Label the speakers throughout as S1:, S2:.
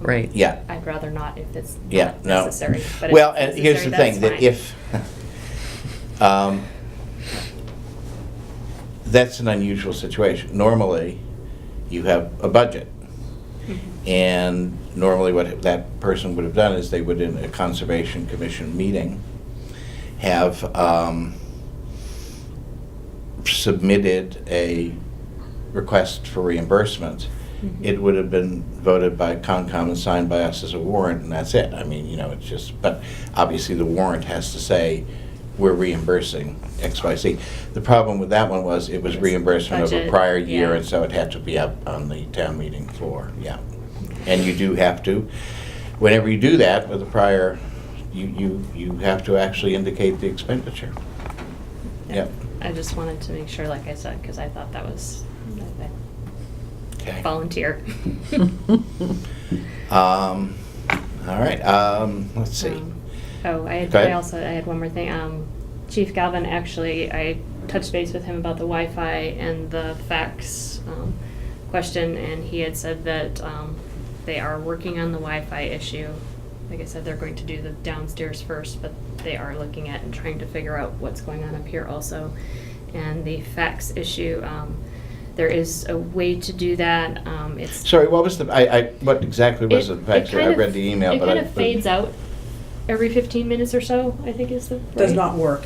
S1: Right.
S2: Yeah.
S3: I'd rather not if it's
S2: Yeah,
S3: not
S2: no.
S3: necessary. but if
S2: Well,
S3: it's
S2: and here's the
S3: necessary,
S2: thing,
S3: that's
S2: that if, um, that's an unusual situation. Normally, you have a budget.
S3: fine.
S2: And normally what that person would have done is they would, in a Conservation Commission meeting, have um, submitted a request for reimbursement.
S3: Mhm.
S2: It would have been voted by Concom and signed by us as a warrant, and that's it. I mean, you know, it's just, but obviously the warrant has to say, we're reimbursing X, Y, Z. The problem with that one was, it was
S3: Yes,
S2: reimbursement of a
S3: budget,
S2: prior year,
S3: yeah.
S2: and so it had to be up on the town meeting floor, yeah. And you do have to, whenever you do that with a prior, you, you, you have to actually indicate the expenditure. Yep.
S3: I just wanted to make sure, like I said, because I thought that was I- I
S2: Okay.
S3: volunteer.
S2: Um, all right, um, let's see.
S3: Um, Oh, I had,
S2: Go ahead.
S3: I also, I had one more thing. Um, Chief Galvin, actually, I touched base with him about the Wi-Fi and the fax, um, question, and he had said that, um, they are working on the Wi-Fi issue. Like I said, they're going to do the downstairs first, but they are looking at and trying to figure out what's going on up here also. And the fax issue, um, there is a way to do that. Um, it's.
S2: Sorry, what was the, I, I, what exactly was the fact that
S3: kind
S2: I
S3: of-
S2: read the email, but I.
S3: It kind of fades out every 15 minutes or so, I think is the.
S4: Does
S3: right?
S4: not work.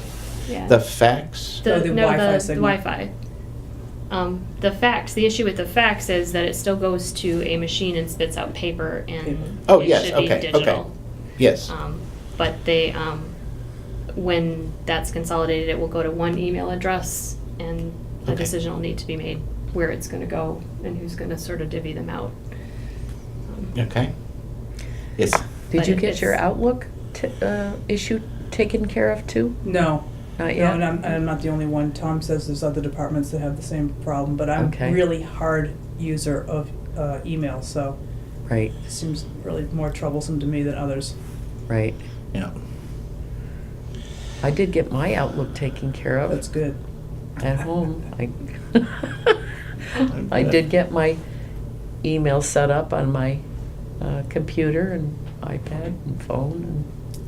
S3: Yeah.
S2: The fax?
S4: Oh,
S3: The,
S4: the
S3: no,
S4: Wi-Fi
S3: the- the
S4: signal.
S3: Wi-Fi. Um, the fax, the issue with the fax is that it still goes to a machine and spits out paper and.
S2: Oh,
S3: it
S2: yes,
S3: should be
S2: okay, okay.
S3: digital.
S2: Yes,
S3: Um, But they, um, when that's consolidated, it will go to one email address and a
S2: Okay.
S3: decision will need to be made where it's gonna go and who's gonna sort of divvy them out. Um,
S2: okay. Yes,
S1: Did
S3: But
S1: you
S3: if
S1: get your
S3: it's-
S1: Outlook t- uh, issue taken care of too?
S4: No.
S1: Not
S4: No,
S1: yet?
S4: and I'm, and I'm not the only one. Tom says there's other departments that have the same problem, but I'm
S1: Okay.
S4: really hard user of uh, email, so
S1: Right,
S4: it seems really more troublesome to me than others.
S1: right.
S2: yeah.
S1: I did get my Outlook taken care
S4: That's
S1: of
S4: good.
S1: at home. I I did get my email set up on my uh, computer and iPad and phone.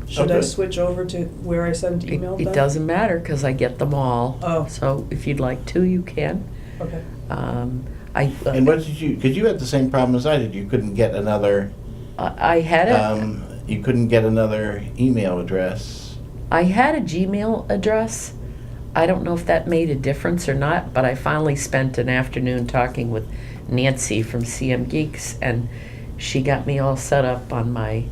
S4: Should I
S2: Okay.
S4: switch over to where I send
S1: and
S4: email?
S1: Oh, It it
S4: then?
S1: doesn't matter because I get them all.
S4: Oh.
S1: So if you'd like to, you can.
S4: Okay.
S1: Um, I.
S2: And what did you, because you had the same problem as I did, you couldn't get another,
S1: I I had a,
S2: um, you couldn't get another email address.
S1: I had a Gmail address. I don't know if that made a difference or not, but I finally spent an afternoon talking with Nancy from CM Geeks, and she got me all set up on my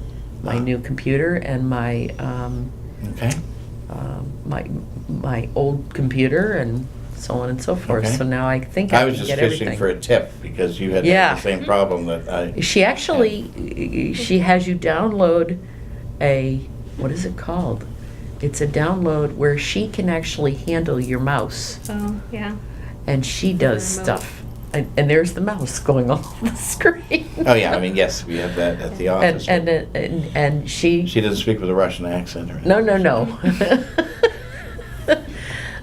S2: Ah.
S1: my new computer and my um,
S2: Okay,
S1: um, my my old computer and so on and so forth.
S2: Okay.
S1: So now I think I,
S2: I was
S1: can
S2: just
S1: get
S2: fishing
S1: everything.
S2: for a tip because you had
S1: Yeah.
S2: the same problem that I,
S1: She actually, she has you download a, what is it called? It's a download where she can actually handle your mouse,
S3: So, yeah.
S1: and she does
S3: The remote.
S1: stuff. And, and there's the mouse going on the screen.
S2: oh yeah, I mean, yes, we have that at the
S1: And,
S2: office.
S1: and, uh, and, and she.
S2: She doesn't speak with a Russian accent or anything.
S1: No, no, no.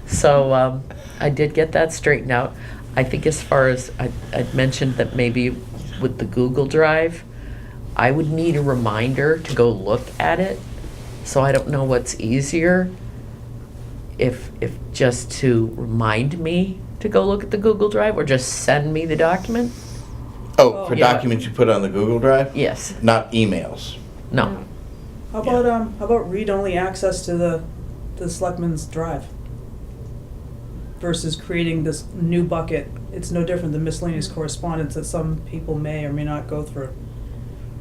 S1: so um, I did get that straightened out. I think as far as I, I'd mentioned that maybe with the Google Drive, I would need a reminder to go look at it. So I don't know what's easier. If if just to remind me to go look at the Google Drive or just send me the document.
S2: Oh, for
S1: Yeah.
S2: documents you put on the Google Drive?
S1: Yes.
S2: Not emails.
S1: No.
S4: How
S2: Yeah.
S4: about, um, how about read-only access to the, the selectmen's drive? Versus creating this new bucket. It's no different than miscellaneous correspondence that some people may or may not go through.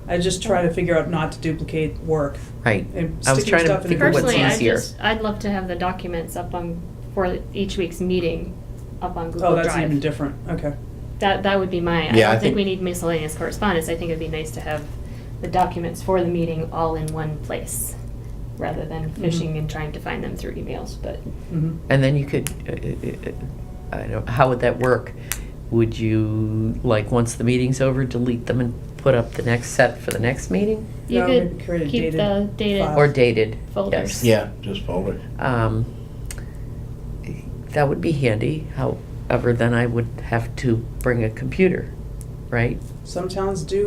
S4: I just try to figure out not to duplicate work.
S1: Right.
S4: And
S1: I was
S4: sticking
S1: trying to
S4: stuff in a
S1: figure what's
S3: Personally, I
S1: easier.
S3: just, I'd love to have the documents up on, for each week's meeting, up on Google
S4: Oh,
S3: Drive.
S4: that's even different, okay.
S3: That, that would be my, I
S2: Yeah,
S3: don't
S2: I
S3: think
S2: think-
S3: we need miscellaneous correspondence, I think it'd be nice to have the documents for the meeting all in one place, rather than
S4: Mm-hmm.
S3: fishing and trying to find them through emails, but.
S4: Mhm.
S1: And then you could, uh, uh, uh, I don't, how would that work? Would you, like, once the meeting's over, delete them and put up the next set for the next meeting?
S3: You
S4: No,
S3: could
S4: maybe create a
S3: keep
S4: dated
S3: the
S4: file.
S3: data.
S1: Or dated?
S3: Folders.
S1: yes.
S2: Yeah, just folder.
S1: Um, That would be handy, however, then I would have to bring a computer, right?
S4: Some towns do